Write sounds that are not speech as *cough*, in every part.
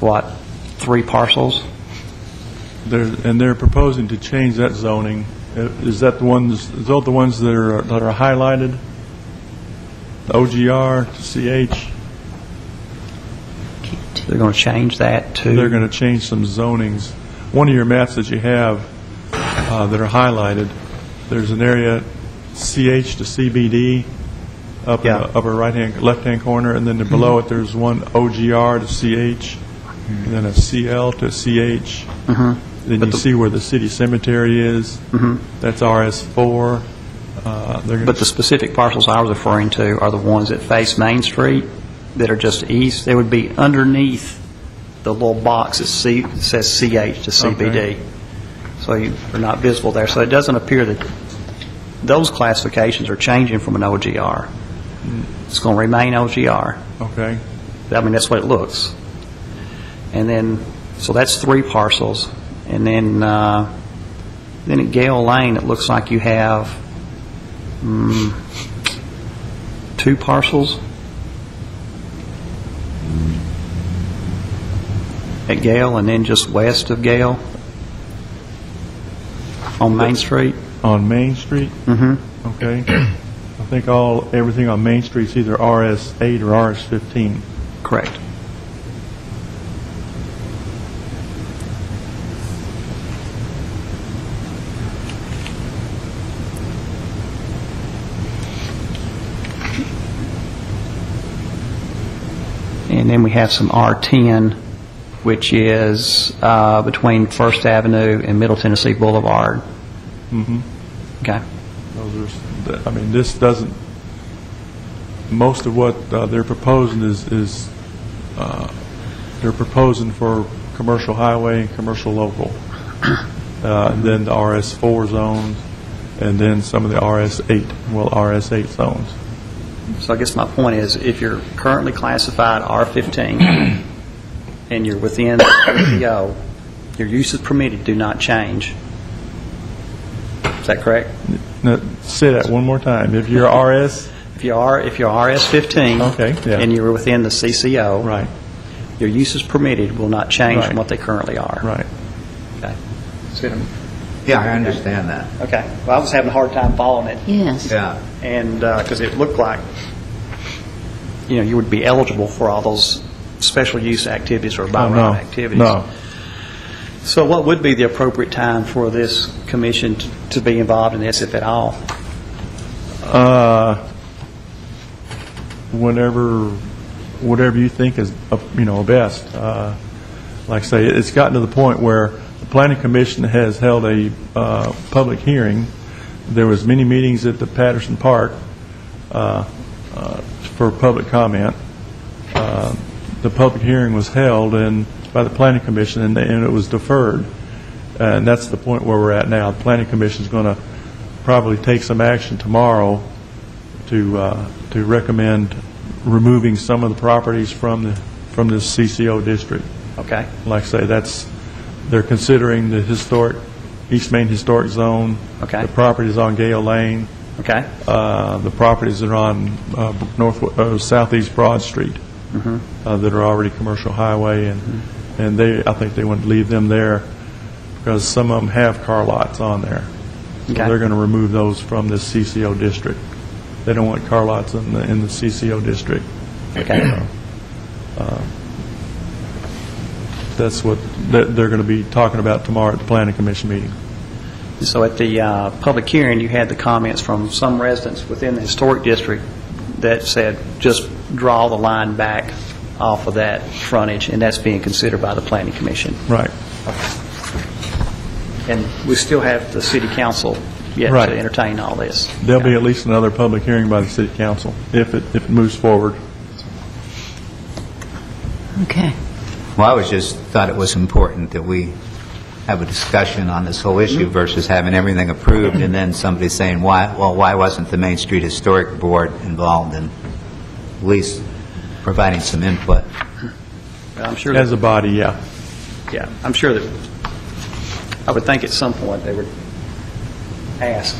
what, three parcels? They're, and they're proposing to change that zoning. Uh, Is that the ones, is that the ones that are, that are highlighted? The OGR to CH, They're going to change that to? they're going to change some zonings. One of your maps that you have uh, that are highlighted, there's an area CH to CBD up in Yeah. Mm-hmm. the upper right-hand, left-hand corner, and then below it, there's one OGR to CH, and then a CL to CH. Then you Mm-hmm. the- Mm-hmm. see where the city cemetery is. That's RS4. Uh, They're going But the to, specific parcels I was referring to are the ones that face Main Street, that are just east. They would be underneath the little box that C- says CH to CBD. Okay. So you- they're not visible there. So it doesn't appear that those classifications are changing from an OGR. It's going to remain OGR. okay. I mean, that's what it looks. And then, so that's three parcels. And then, uh, then at Gale Lane, it looks like you have mm, two parcels at Gale, and then just west of Gale on Main Street. On Main Street? Mm-hmm. Okay. I think all, everything on Main Street's either RS8 or RS15. Correct. And then we have some R10, which is uh, between First Avenue and Middle Tennessee Boulevard. Mm-hmm. Okay? Those are, s- th- I mean, this doesn't, most of what uh, they're proposing is, is, uh, they're proposing for commercial highway and commercial local, Uh, and then the RS4 zones, and then some of the RS8, well, RS8 zones. So I guess my point is, if you're currently classified *clears throat* R-15 and you're within the PPO, your uses permitted do not change. Is that correct? Now, say that one more time. If you're RS, If you are, if you're RS-15 Okay, yeah. and you're within the CCO, right, your uses permitted will not change from Right. what they currently are. right. Okay. Yeah, I understand that. Okay. Well, I was having a hard time following it. Yes. Yeah. And, because it looked like, you know, you would be eligible for all those special use activities or by Oh, no. right activities. No. So what would be the appropriate time for this commission t- to be involved in this, if at all? Uh, whatever, whatever you think is, uh, you know, best. Uh, Like I say, it's gotten to the point where the planning commission has held a uh, public hearing. There was many meetings at the Patterson Park uh, uh, for public comment. Uh, The public hearing was held and, by the planning commission, and and it was deferred. And that's the point where we're at now. The planning commission's going to probably take some action tomorrow to, uh, to recommend removing some of the properties from the, from this CCO district. Okay, Like I say, that's, they're considering the historic, East Main Historic Zone. Okay. The properties on Gale Lane, okay, uh, the properties that are on uh, north, uh, southeast Broad Street, uh, that are already commercial highway, and, and they, I think they want to leave them there, because some of them have car lots on there. So Okay. they're going to remove those from the CCO district. They don't want car lots in the, in the CCO district. okay. That's what, they're, they're going to be talking about tomorrow at the planning commission meeting. So at the uh, public hearing, you had the comments from some residents within the historic district that said, just draw the line back off of that frontage, and that's being considered by the planning commission. Right. And we still have the city council yet Right. to entertain all this. There'll be at least another public hearing by the city council, if it, if it moves forward. Okay. Well, I was just, thought it was important that we have a discussion on this whole issue versus having everything approved and then somebody saying, why, well, why wasn't the Main Street Historic Board involved in at least providing some input? I'm sure. As a body, yeah. Yeah, I'm sure that, I would think at some point they would ask.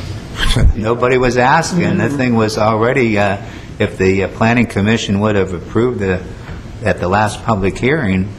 Nobody was asking. The thing was already, uh, if the uh, Planning Commission would have approved it at the last public hearing,